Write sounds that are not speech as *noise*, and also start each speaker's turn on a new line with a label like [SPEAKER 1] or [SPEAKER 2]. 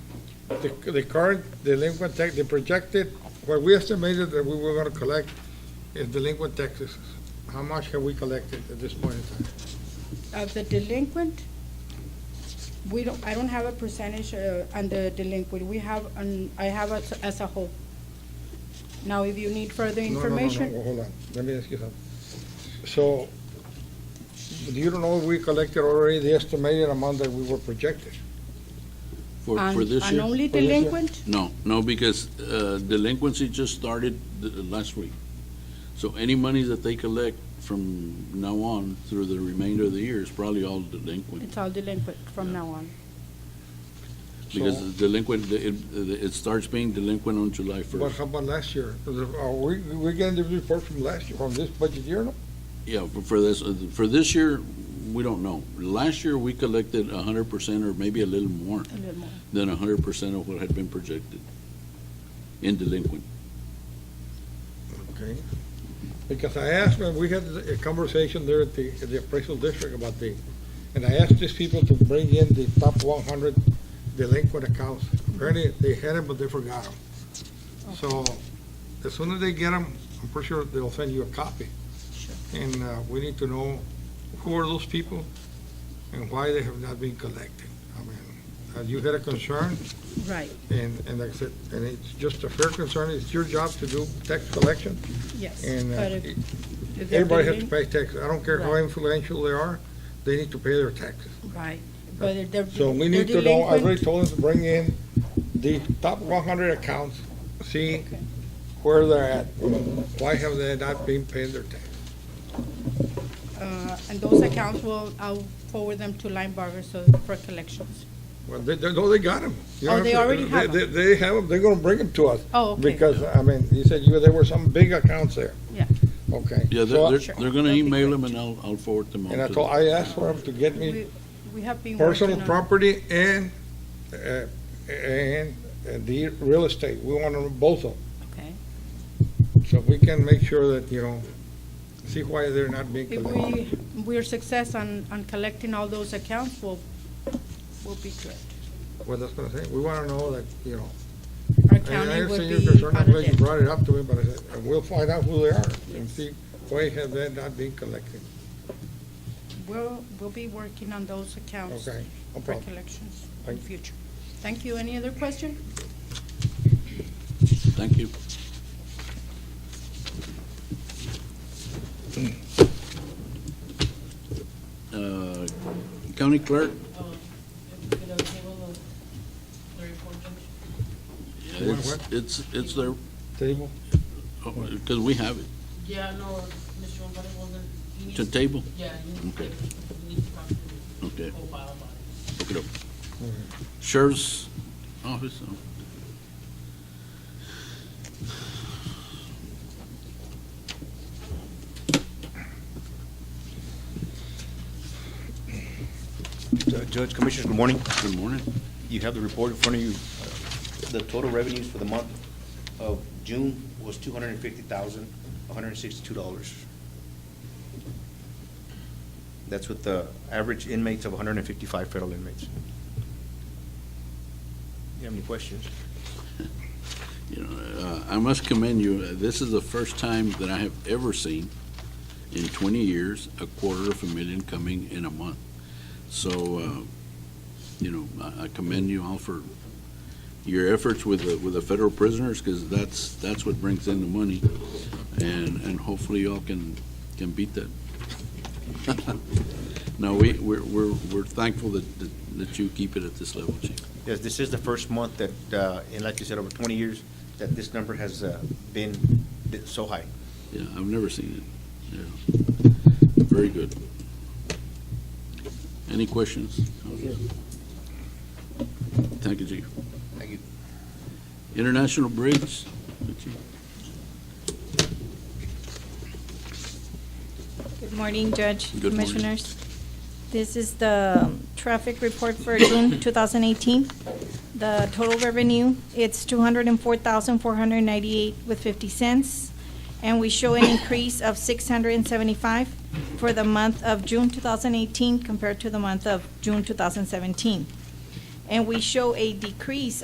[SPEAKER 1] The, the current delinquent tax, the projected, what we estimated that we were gonna collect is delinquent taxes. How much have we collected at this point in time?
[SPEAKER 2] Of the delinquent, we don't, I don't have a percentage uh, on the delinquent. We have, an- I have as- as a whole. Now, if you need further
[SPEAKER 1] No, no, no, no,
[SPEAKER 2] information,
[SPEAKER 1] Hold on, let me ask you something. So, you don't know if we collected already the estimated amount that we were projected?
[SPEAKER 3] For, for
[SPEAKER 2] on
[SPEAKER 3] this
[SPEAKER 2] on
[SPEAKER 3] year?
[SPEAKER 2] only
[SPEAKER 1] For this year?
[SPEAKER 2] delinquent,
[SPEAKER 3] No, no, because uh, delinquency just started th- last week. So any money that they collect from now on through the remainder of the year is probably all delinquent.
[SPEAKER 2] it's all delinquent from now on.
[SPEAKER 3] Because
[SPEAKER 1] So-
[SPEAKER 3] the delinquent, the- it, it starts being delinquent on July
[SPEAKER 1] But
[SPEAKER 3] first.
[SPEAKER 1] how about last year? Are we, we getting the report from last year, from this budget year, no?
[SPEAKER 3] Yeah, for- for this, uh, for this year, we don't know. Last year, we collected a hundred percent or maybe a little more
[SPEAKER 2] a little more.
[SPEAKER 3] than a hundred percent of what had been projected in delinquent.
[SPEAKER 1] Okay. Because I asked, when we had a conversation there at the, at the appraisal district about the, and I asked these people to bring in the top one hundred delinquent accounts. Apparently, they had them, but they forgot them. So, as soon as they get them, I'm pretty sure they'll send you a copy. And, uh, we need to know who are those people and why they have not been collected. I mean, uh, you had a concern,
[SPEAKER 2] Right,
[SPEAKER 1] and, and like I said, and it's just a fair concern, it's your job to do tax collection.
[SPEAKER 2] yes.
[SPEAKER 1] And, uh,
[SPEAKER 2] But if- if they're
[SPEAKER 1] Everybody has to
[SPEAKER 2] delin-
[SPEAKER 1] pay taxes. I don't care how
[SPEAKER 2] Right.
[SPEAKER 1] influential they are, they need to pay their taxes.
[SPEAKER 2] Right, but if they're
[SPEAKER 1] So we
[SPEAKER 2] they're
[SPEAKER 1] need to know, I
[SPEAKER 2] delinquent,
[SPEAKER 1] already told them to bring in the top one hundred accounts, see
[SPEAKER 2] Okay.
[SPEAKER 1] where they're at. Why have they not been paying their taxes?
[SPEAKER 2] uh, and those accounts will, I'll forward them to Linebarger so for collections.
[SPEAKER 1] Well, they, they, no, they got them.
[SPEAKER 2] Oh, they already have
[SPEAKER 1] They, they have them, they're gonna bring them to us.
[SPEAKER 2] Oh, okay.
[SPEAKER 1] Because, I mean, you said you, there were some big accounts there.
[SPEAKER 2] Yeah.
[SPEAKER 1] Okay.
[SPEAKER 3] Yeah,
[SPEAKER 1] So I-
[SPEAKER 3] they're,
[SPEAKER 2] Sure.
[SPEAKER 3] they're, they're gonna
[SPEAKER 2] That'd be
[SPEAKER 3] email
[SPEAKER 2] great.
[SPEAKER 3] them and I'll, I'll forward them on
[SPEAKER 1] And I
[SPEAKER 3] to
[SPEAKER 1] told,
[SPEAKER 3] them.
[SPEAKER 1] I asked for them to get me
[SPEAKER 2] We we have been working
[SPEAKER 1] personal
[SPEAKER 2] on-
[SPEAKER 1] property and, uh, and uh, the real estate. We want them both of them.
[SPEAKER 2] Okay.
[SPEAKER 1] So we can make sure that, you know, see why they're not being
[SPEAKER 2] If
[SPEAKER 1] collected.
[SPEAKER 2] we, we're success on, on collecting all those accounts, we'll, we'll be good.
[SPEAKER 1] Well, that's what I'm saying, we want to know that, you know. I-
[SPEAKER 2] Our
[SPEAKER 1] I
[SPEAKER 2] county will
[SPEAKER 1] understand
[SPEAKER 2] be
[SPEAKER 1] your concern, I'm glad you
[SPEAKER 2] audited.
[SPEAKER 1] brought it up to me, but I said, and we'll find out who they are and see why have they not been collected,
[SPEAKER 2] We'll, we'll be working on those accounts
[SPEAKER 1] okay? No
[SPEAKER 2] for
[SPEAKER 1] problem.
[SPEAKER 2] collections in
[SPEAKER 1] Thank you.
[SPEAKER 2] future. Thank you. Any other question?
[SPEAKER 3] Thank you. Uh, County Clerk? It's,
[SPEAKER 1] what?
[SPEAKER 3] it's, it's there, oh,
[SPEAKER 1] Table?
[SPEAKER 3] because we have it,
[SPEAKER 4] Yeah, no, Mr. Romano wasn't. he needs-
[SPEAKER 3] to table,
[SPEAKER 4] Yeah, he needs to,
[SPEAKER 3] Okay.
[SPEAKER 4] he needs to talk to the
[SPEAKER 3] okay,
[SPEAKER 4] co-file about it.
[SPEAKER 3] look it up. Sheriff's Office, oh.
[SPEAKER 5] Ju- Uh, Judge, Commissioners, good morning.
[SPEAKER 3] good morning.
[SPEAKER 5] You have the report in front of you. Uh, The total revenues for the month of June was two hundred and fifty thousand, one hundred and sixty-two dollars. That's with the average inmates of one hundred and fifty-five federal inmates. You have any questions?
[SPEAKER 3] You know, uh, I must commend you. Uh, This is the first time that I have ever seen in 20 years a quarter of a million coming in a month. So, uh, you know, I- I commend you all for your efforts with the, with the federal prisoners because that's, that's what brings in the money. And, and hopefully y'all can, can beat that. *laughs* No, we, we're, we're we're thankful that, that- that you keep it at this level, Chief.
[SPEAKER 5] Yes, this is the first month that, uh, and like you said, over twenty years, that this number has uh, been been so high.
[SPEAKER 3] Yeah, I've never seen it. Yeah. Very good. Any questions? Thank you, Chief.
[SPEAKER 5] Thank you.
[SPEAKER 3] International Bridge? Chief.
[SPEAKER 6] Good morning, Judge,
[SPEAKER 3] Good morning.
[SPEAKER 6] Commissioners. This is the um, traffic report for
[SPEAKER 3] *coughs*
[SPEAKER 6] June 2018. The total revenue, it's 204,498 with 50 cents, and we show an increase of 675 for the month of June 2018 compared to the month of June 2017. And we show a decrease